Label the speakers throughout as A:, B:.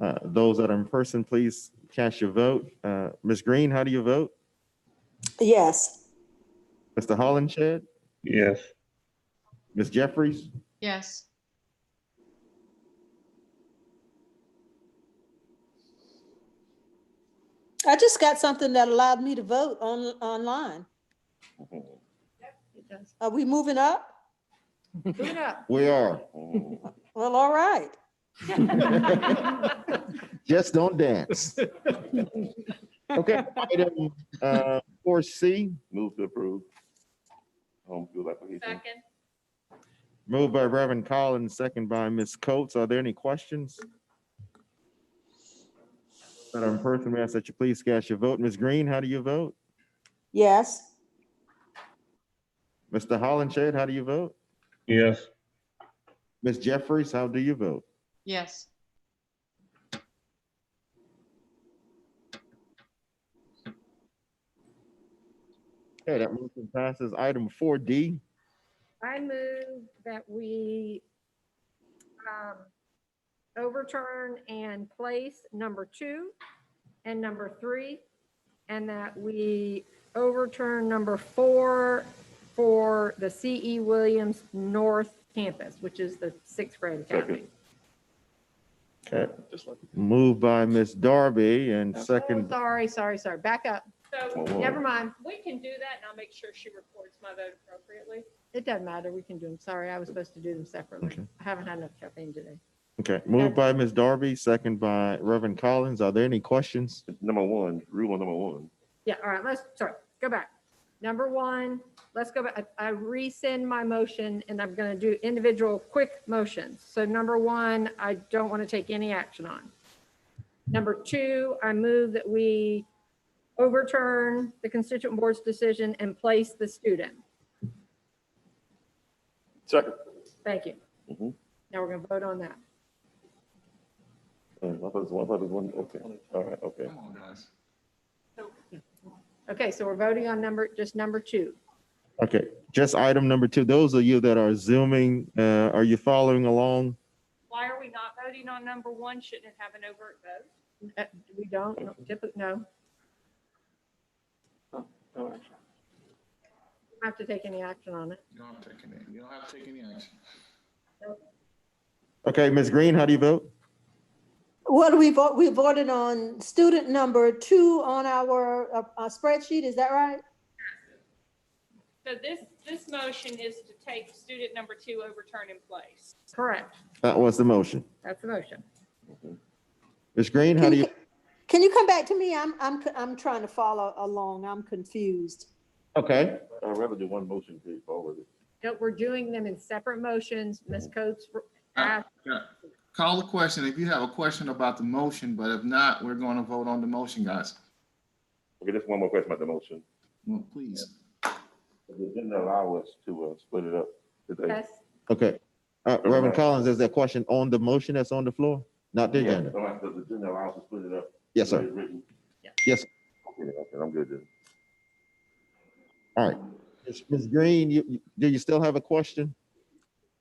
A: Uh, Those that are in person, please cast your vote. Uh, Ms. Green, how do you vote?
B: Yes.
A: Mr. Hollenshed?
C: Yes.
A: Ms. Jeffries?
D: Yes.
B: I just got something that allowed me to vote on, online.
D: It does.
B: Are we moving up?
D: Move it up.
A: We are.
B: Well, all right.
A: Just don't dance. Okay. item, uh, 4C,
C: Move to approve. Home field application.
D: Second.
A: moved by Reverend Collins, second by Ms. Coates. Are there any questions? That are in person, we ask that you please cast your vote. Ms. Green, how do you vote?
B: Yes.
A: Mr. Hollenshed, how do you vote?
C: Yes.
A: Ms. Jeffries, how do you vote?
D: Yes.
A: Okay, that motion passes. Item 4D,
E: I move that we um, overturn and place number two and number three, and that we overturn number four for the C.E. Williams North Campus, which is the sixth grade academy.
C: Second.
A: moved by Ms. Darby and
E: Oh,
A: second,
E: Sorry, sorry, sorry. Back up.
C: Whoa,
F: So
C: whoa.
E: Never mind.
F: we can do that and I'll make sure she records my vote appropriately.
E: It doesn't matter. We can do them. Sorry, I was supposed to do them separately.
A: Okay.
E: I haven't had enough caffeine today.
A: okay, moved by Ms. Darby, second by Reverend Collins. Are there any questions?
C: Number one, rule number one.
E: Yeah, all right, let's, sorry, go back. Number one, let's go back. I I rescind my motion and I'm going to do individual quick motions. So number one, I don't want to take any action on. Number two, I move that we overturn the constituent board's decision and place the student.
C: Second.
E: Thank you.
C: Mhm.
E: Now we're going to vote on that.
C: Uh, I thought it was one, I thought it was one, okay, all right, okay.
G: Come on, guys.
E: Okay, so we're voting on number, just number two.
A: Okay, just item number two. Those of you that are zooming, uh, are you following along?
F: Why are we not voting on number one? Shouldn't it have an overt vote?
E: Uh, We don't, typically, no. Don't Have to take any action on it.
G: You don't have to take any, you don't have to take any action.
A: Okay, Ms. Green, how do you vote?
B: What do we vote, we voted on student number two on our uh, uh, spreadsheet, is that right?
F: So this, this motion is to take student number two, overturn in place.
E: Correct.
A: That was the motion.
E: That's the motion.
A: Ms. Green, how do you?
B: Can you come back to me? I'm, I'm, I'm trying to follow along, I'm confused.
A: Okay,
C: I'd rather do one motion, please, all of it.
E: No, we're doing them in separate motions. Ms. Coates
G: Uh,
E: asked,
G: yeah. Call the question if you have a question about the motion, but if not, we're going to vote on the motion, guys.
C: Okay, just one more question about the motion.
G: Well, Please.
C: They didn't allow us to uh, split it up today.
E: yes,
A: okay. Uh, Reverend Collins, is there a question on the motion that's on the floor? Not the agenda?
C: Somebody said they didn't allow us to split it up.
A: Yes, sir.
C: It's written.
E: Yeah.
A: Yes.
C: Okay, okay, I'm good then.
A: All right. Ms. Ms. Green, you, you- do you still have a question?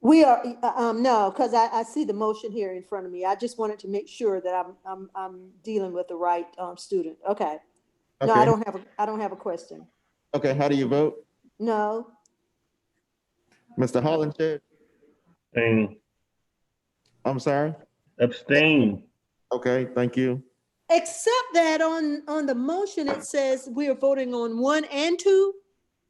B: We are, uh, um, no, because I, I see the motion here in front of me, I just wanted to make sure that I'm, I'm, I'm dealing with the right, um, student, okay. No, I
A: Okay.
B: don't have, a I don't have a question,
A: Okay, how do you vote?
B: no,
A: Mr. Hollenshed?
H: Abstain.
A: I'm sorry?
H: Abstain.
A: Okay, thank you.
B: except that on, on the motion, it says we are voting on one and two?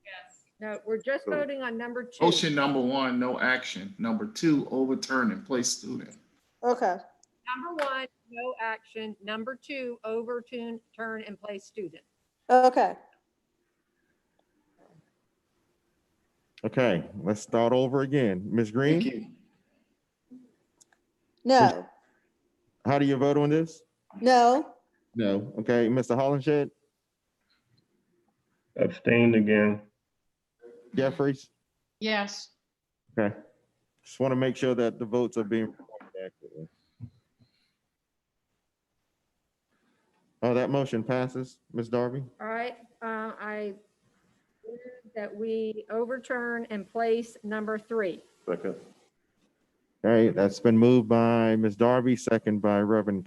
F: Yes.
E: no, we're just voting on number two.
G: Motion number one, no action. Number two, overturn and place student.
B: Okay,
E: Number one, no action. Number two, overturn, turn and place student.
B: okay.
A: Okay, let's start over again. Ms.
G: Thank
A: Green,
G: you.
B: No,
A: how do you vote on this?
B: no,
A: No. Okay, Mr. Hollenshed,
H: Abstain again.
A: Jeffries?
D: Yes.
A: Okay. Just want to make sure that the votes are being recorded accurately. Oh, that motion passes, Ms. Darby?
E: All right, uh, I move that we overturn and place number three.
C: Second.
A: All right, that's been moved by Ms. Darby, second by Reverend